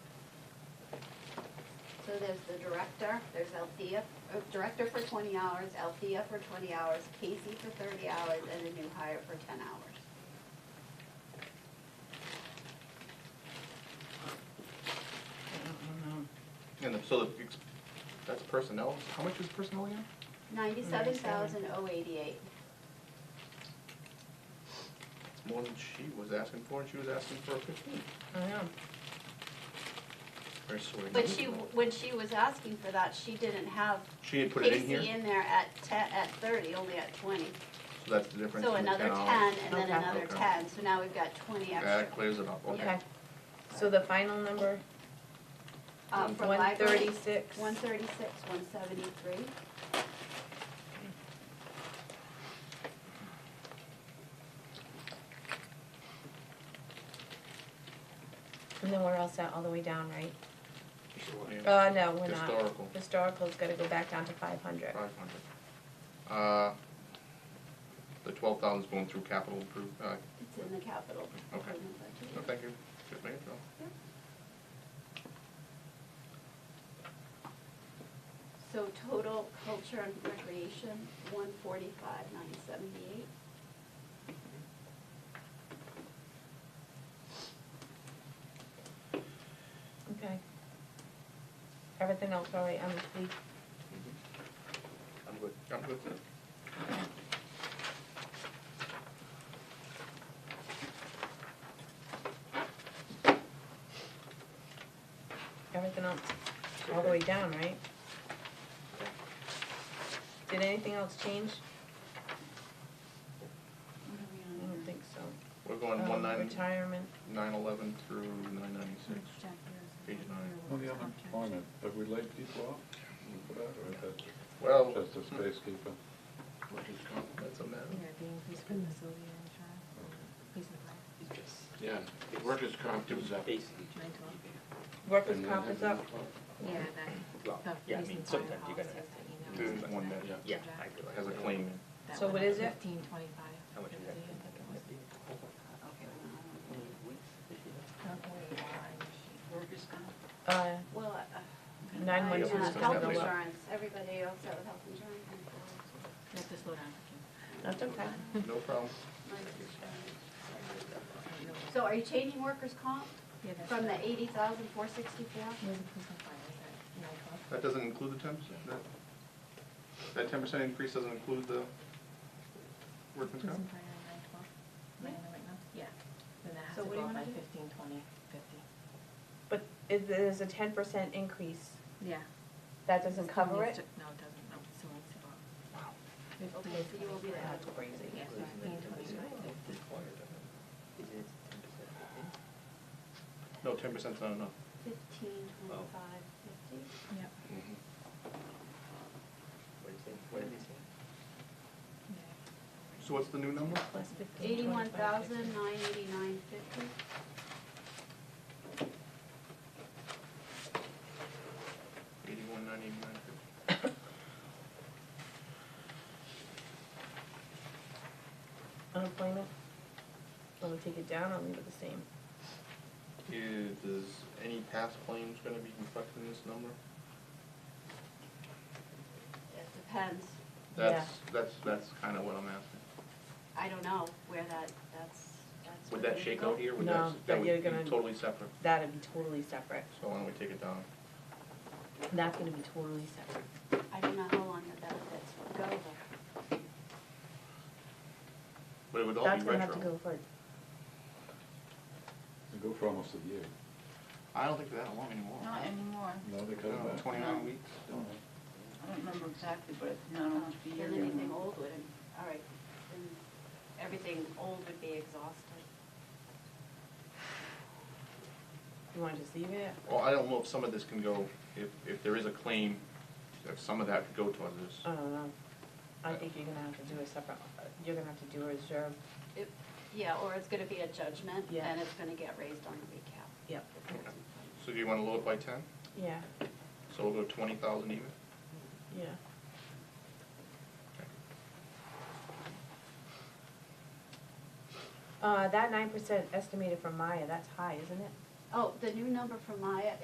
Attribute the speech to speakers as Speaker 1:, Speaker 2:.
Speaker 1: So there's the director, there's Althea, uh, director for twenty hours, Althea for twenty hours, Casey for thirty hours, and a new hire for ten hours.
Speaker 2: And the- so the, ex- that's personnel, how much is personnel again?
Speaker 1: Ninety-seven thousand oh eighty-eight.
Speaker 2: It's more than she was asking for, and she was asking for fifteen.
Speaker 3: I know.
Speaker 2: Very sorry.
Speaker 1: But she, when she was asking for that, she didn't have
Speaker 2: She had put it in
Speaker 1: Casey
Speaker 2: here,
Speaker 1: in there at te, at thirty, only at twenty.
Speaker 2: so that's the difference.
Speaker 1: So
Speaker 2: in the
Speaker 1: another ten
Speaker 2: hours.
Speaker 1: and then
Speaker 3: Okay.
Speaker 1: another
Speaker 2: Okay.
Speaker 1: ten, so now we've got twenty extra.
Speaker 2: That clears it up, okay.
Speaker 3: Okay. So the final number,
Speaker 1: Uh, for
Speaker 3: one
Speaker 1: library,
Speaker 3: thirty-six.
Speaker 1: one thirty-six, one seventy-three.
Speaker 3: And then we're all set all the way down, right?
Speaker 2: Yeah,
Speaker 3: Uh, no, we're not.
Speaker 2: Historical,
Speaker 3: Historical's gotta go back down to five hundred.
Speaker 2: five hundred. Uh, the twelve thousand's going through capital improve, uh,
Speaker 1: It's in the capital.
Speaker 2: Okay.
Speaker 1: improvement budget.
Speaker 2: no, thank you, just making sure.
Speaker 1: So total culture and recreation, one forty-five, nine seventy-eight.
Speaker 3: Okay. Everything else all right on the um, fleet?
Speaker 2: Mm-hmm. I'm good. I'm good.
Speaker 3: Everything else all the way down, right? Did anything else change? I don't think so.
Speaker 2: We're going
Speaker 3: Um,
Speaker 2: one nine,
Speaker 3: Retirement,
Speaker 2: nine eleven through nine ninety-six, page nine.
Speaker 4: On the unemployment, have we laid people off? for that, or is that
Speaker 2: Well,
Speaker 4: Just a space keeper.
Speaker 2: that's a matter.
Speaker 5: Yeah, the increase for facility and trial, increase in class,
Speaker 6: Yeah, the workers' comp was up.
Speaker 5: nine twelve.
Speaker 3: workers'
Speaker 4: And then
Speaker 3: comp is up,
Speaker 5: Yeah, that, the
Speaker 7: yeah, I
Speaker 5: police
Speaker 7: mean,
Speaker 5: and fire
Speaker 7: sometimes you're gonna
Speaker 5: officers
Speaker 7: have
Speaker 5: that you know.
Speaker 2: There's one that
Speaker 6: Yeah.
Speaker 7: Yeah, I realize.
Speaker 2: has a claim.
Speaker 5: That
Speaker 3: So
Speaker 5: went
Speaker 3: what
Speaker 5: up
Speaker 3: is it?
Speaker 5: Fifteen twenty-five.
Speaker 7: How much is that?
Speaker 5: fifty, I think it was. Okay, well, not only that, she-
Speaker 3: uh,
Speaker 1: Well, uh.
Speaker 3: nine
Speaker 1: I-
Speaker 3: one
Speaker 1: uh,
Speaker 3: two is
Speaker 1: Health
Speaker 3: gonna go up.
Speaker 1: insurance, everybody else out with health insurance. and so
Speaker 5: You have to slow down.
Speaker 3: That's okay.
Speaker 2: No problem.
Speaker 1: it's life insurance. So are you changing workers' comp
Speaker 5: Yeah, that's
Speaker 1: from
Speaker 5: right.
Speaker 1: the eighty thousand, four sixty-four?
Speaker 5: Where's the police and fire, is that nine twelve?
Speaker 2: That doesn't include the ten percent? That ten percent increase doesn't include the workman's
Speaker 5: Police
Speaker 2: comp?
Speaker 5: and fire, nine twelve, am I in the right now? Yeah, then that has
Speaker 1: So
Speaker 5: to
Speaker 1: what do
Speaker 5: go
Speaker 1: you
Speaker 5: up by
Speaker 1: wanna do?
Speaker 5: fifteen, twenty, fifty.
Speaker 3: But it, there's a ten percent increase,
Speaker 5: Yeah.
Speaker 3: that doesn't
Speaker 5: Still
Speaker 3: cover
Speaker 5: needs
Speaker 3: it?
Speaker 5: to- No, it doesn't, no, it still needs to go up.
Speaker 1: Okay, so you will be there.
Speaker 3: That's crazy.
Speaker 5: Yeah, fifteen, twenty-five, fifty.
Speaker 2: No, ten percent's not enough.
Speaker 1: Fifteen, twenty-five, fifty?
Speaker 5: Yep. Yeah.
Speaker 2: So what's the new number?
Speaker 3: Plus fifteen,
Speaker 1: Eighty-one
Speaker 3: twenty-five, fifty.
Speaker 1: thousand, nine eighty-nine, fifty?
Speaker 2: Eighty-one, nine eighty-nine fifty.
Speaker 3: Unemployment, wanna take it down, I'll leave it the same.
Speaker 2: Is, is any past claims gonna be reflected in this number?
Speaker 1: It depends.
Speaker 2: That's, that's, that's kinda what I'm asking.
Speaker 1: I don't know where that, that's, that's.
Speaker 2: Would
Speaker 1: where
Speaker 2: that
Speaker 1: they
Speaker 2: shake
Speaker 1: go.
Speaker 2: out here? Would
Speaker 3: No,
Speaker 2: that,
Speaker 3: that
Speaker 2: that would
Speaker 3: you're
Speaker 2: be
Speaker 3: gonna-
Speaker 2: totally separate,
Speaker 3: That'd be totally separate,
Speaker 2: so why don't we take it down?
Speaker 3: that's gonna be totally separate.
Speaker 1: I don't know how long the benefits would go, but
Speaker 2: But it would all be retro.
Speaker 3: That's gonna have to go for,
Speaker 4: They go for almost a year.
Speaker 2: I don't think they're that long anymore.
Speaker 8: Not anymore.
Speaker 4: No, they cut it
Speaker 2: No,
Speaker 4: back.
Speaker 2: Twenty-nine weeks.
Speaker 4: Don't they?
Speaker 8: I don't remember exactly, but it's not almost a year.
Speaker 1: Uh, then anything old wouldn't, all right, then everything old would be exhausted.
Speaker 3: you wanna just leave it?
Speaker 2: Well, I don't know if some of this can go, if, if there is a claim, if some of that could go towards this.
Speaker 3: I don't know. I think you're gonna have to do a separate, you're gonna have to do a reserve.
Speaker 1: It, yeah, or it's gonna be a judgment,
Speaker 3: Yeah.
Speaker 1: and it's gonna get raised on the recap.
Speaker 3: Yep.
Speaker 2: So do you wanna lower it by ten?
Speaker 3: Yeah,
Speaker 2: So we'll go twenty thousand even?
Speaker 3: yeah. Uh, that nine percent estimated from Maya, that's high, isn't it?
Speaker 1: Oh, the new number for Maya